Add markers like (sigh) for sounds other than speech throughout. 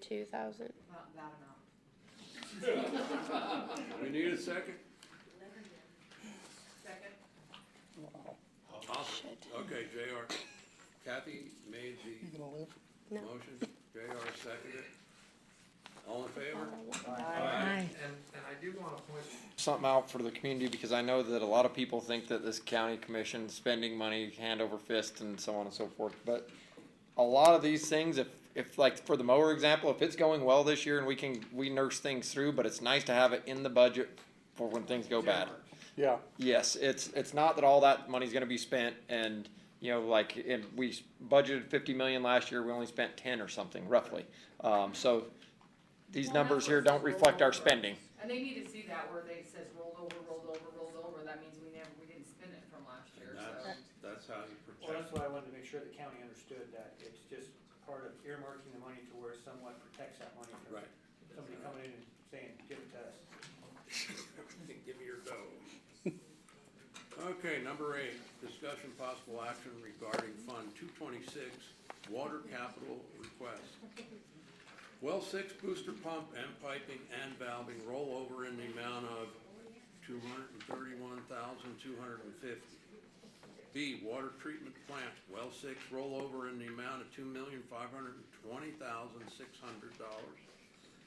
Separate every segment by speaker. Speaker 1: Two thousand.
Speaker 2: Not that amount.
Speaker 3: We need a second?
Speaker 2: Second?
Speaker 3: Awesome. Okay, JR. Kathy made
Speaker 4: You
Speaker 3: the
Speaker 4: gonna live?
Speaker 1: No.
Speaker 3: motion, JR seconded it. All in favor?
Speaker 5: And,
Speaker 3: Aye.
Speaker 5: and I do wanna point,
Speaker 6: something out for the community because I know that a lot of people think that this county commission spending money hand over fist and so on and so forth, but a lot of these things, if, if like for the mower example, if it's going well this year and we can, we nurse things through, but it's nice to have it in the budget for when things go bad.
Speaker 4: Yeah,
Speaker 6: Yes, it's, it's not that all that money's gonna be spent and, you know, like, and we s- budgeted fifty million last year, we only spent ten or something roughly. Um, so these
Speaker 2: Well, that's
Speaker 6: numbers here
Speaker 2: what's
Speaker 6: don't reflect our
Speaker 2: rolled over.
Speaker 6: spending.
Speaker 2: And they need to see that where they says rolled over, rolled over, rolled over, that means we never, we didn't spend it from last year,
Speaker 3: And
Speaker 2: so.
Speaker 3: that's, that's how you
Speaker 5: well, that's
Speaker 3: protect.
Speaker 5: why I wanted to make sure the county understood that it's just part of earmarking the money to where it somewhat protects that money from
Speaker 3: Right.
Speaker 5: somebody coming in and saying, give it to us.
Speaker 3: (laughs) Give me your dough. Okay, number eight, discussion possible action regarding Fund two twenty-six, water capital request. Well six booster pump and piping and valving rollover in the amount of two hundred and thirty-one thousand, two hundred and fifty. B, water treatment plant, well six rollover in the amount of two million, five hundred and twenty thousand, six hundred dollars.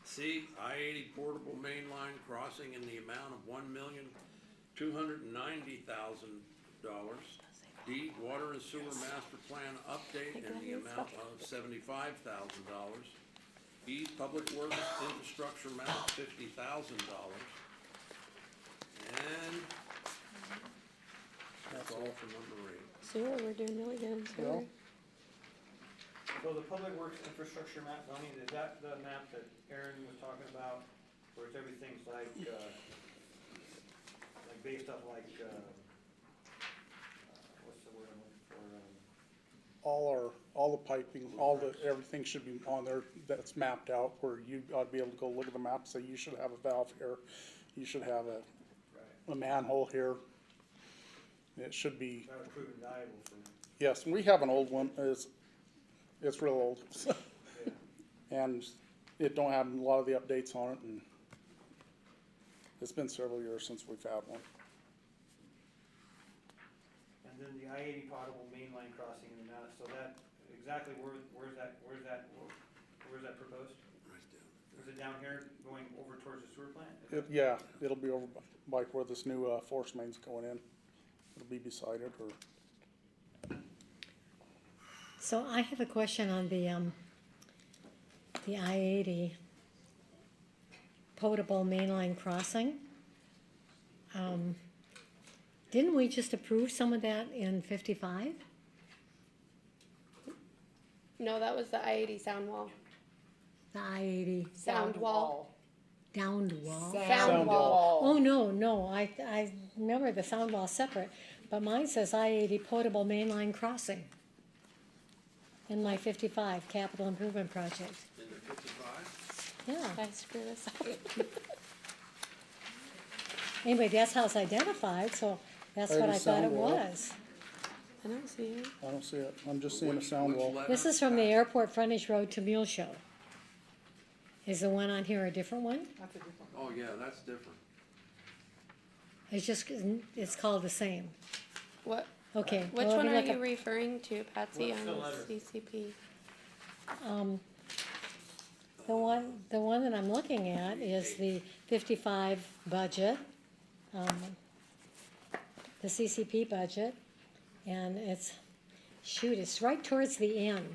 Speaker 3: C, I eighty portable mainline crossing in the amount of one million, two hundred and ninety thousand dollars. D, water and sewer master plan update in the amount of seventy-five thousand dollars. E, public works infrastructure amount fifty thousand dollars. And that's all for number eight.
Speaker 1: Sewer, we're doing really good in sewer.
Speaker 4: Well.
Speaker 5: So the public works infrastructure map, Melanie, is that the map that Aaron was talking about, where it's everything's like, uh, like based off like, uh, uh, what's the word I'm looking for, um,
Speaker 4: all our, all the piping, all the, everything should be on there that's mapped out where you ought to be able to go look at the map, say you should have a valve here, you should have a,
Speaker 5: right,
Speaker 4: a manhole here. It should be,
Speaker 5: that would prove invaluable for me.
Speaker 4: yes, we have an old one, it's, it's real old. (laughs)
Speaker 5: Yeah.
Speaker 4: And it don't have a lot of the updates on it and it's been several years since we've had one.
Speaker 5: And then the I eighty potable mainline crossing in the Mount, so that, exactly where, where's that, where's that, where's that proposed?
Speaker 3: Right down.
Speaker 5: Is it down here going over towards the sewer plant? Is
Speaker 4: It,
Speaker 5: that-
Speaker 4: yeah, it'll be over by by where this new, uh, force main's going in. It'll be beside it or.
Speaker 7: So I have a question on the, um, the I eighty potable mainline crossing. Um, Didn't we just approve some of that in fifty-five?
Speaker 1: No, that was the I eighty sound wall.
Speaker 7: The I eighty
Speaker 1: Sound wall.
Speaker 7: downed wall?
Speaker 1: Sound wall.
Speaker 7: Oh, no, no, I, I remember the sound wall separate, but mine says I eighty potable mainline crossing in my fifty-five capital improvement project,
Speaker 3: In the fifty-five?
Speaker 7: yeah.
Speaker 1: I screwed this (laughs) up.
Speaker 7: Anyway, that's how it's identified, so that's what I thought it
Speaker 4: Thirty-seven wall.
Speaker 7: was.
Speaker 1: I don't see it.
Speaker 4: I don't see it, I'm just seeing a sound wall.
Speaker 7: This is from the airport frontage road to Mule Show. Is the one on here a different one?
Speaker 2: That's a different.
Speaker 3: Oh, yeah, that's different.
Speaker 7: It's just, it's called the same.
Speaker 1: What,
Speaker 7: Okay.
Speaker 1: which
Speaker 7: well, let
Speaker 1: one
Speaker 7: me
Speaker 1: are
Speaker 7: look
Speaker 1: you
Speaker 7: up-
Speaker 1: referring to, Patsy,
Speaker 5: What's
Speaker 1: on
Speaker 5: the letter?
Speaker 1: the CCP?
Speaker 7: Um, the one, the one that I'm looking at is the fifty-five budget, um, the CCP budget, and it's, shoot, it's right towards the end,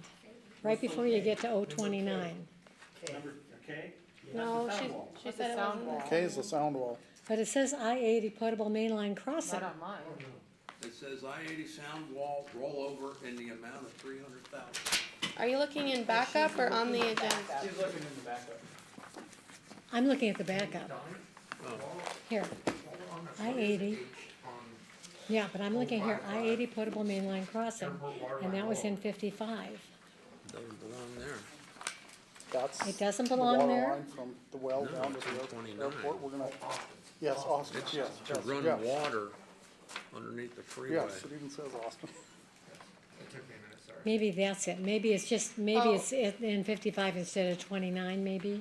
Speaker 7: right before you get to O twenty-nine.
Speaker 5: Number, okay?
Speaker 1: No,
Speaker 5: That's the
Speaker 1: she,
Speaker 5: sound wall.
Speaker 1: she said it
Speaker 2: sound
Speaker 1: wasn't.
Speaker 4: Okay, is the sound wall,
Speaker 7: But it says I eighty potable mainline crossing.
Speaker 2: Not on mine.
Speaker 3: It says I eighty sound wall rollover in the amount of three hundred thousand.
Speaker 1: Are you looking in backup or on the agenda?
Speaker 5: She's looking in the backup.
Speaker 7: I'm looking at the backup, here, I eighty. Yeah, but I'm looking here, I eighty potable mainline crossing, and that was in fifty-five.
Speaker 3: Doesn't belong there.
Speaker 4: that's.
Speaker 7: It doesn't
Speaker 4: the
Speaker 7: belong
Speaker 4: water
Speaker 7: there?
Speaker 4: line From the well
Speaker 3: No,
Speaker 4: down to
Speaker 3: it's
Speaker 4: the
Speaker 3: 129.
Speaker 4: airport, we're gonna, yes, Austin,
Speaker 3: It's
Speaker 4: yes,
Speaker 3: to
Speaker 4: yes,
Speaker 3: run
Speaker 4: yes.
Speaker 3: water underneath the freeway.
Speaker 4: Yes, it even says Austin.
Speaker 8: It took me a minute, sorry.
Speaker 7: Maybe that's it, maybe it's just, maybe
Speaker 1: Oh.
Speaker 7: it's in in fifty-five instead of twenty-nine, maybe?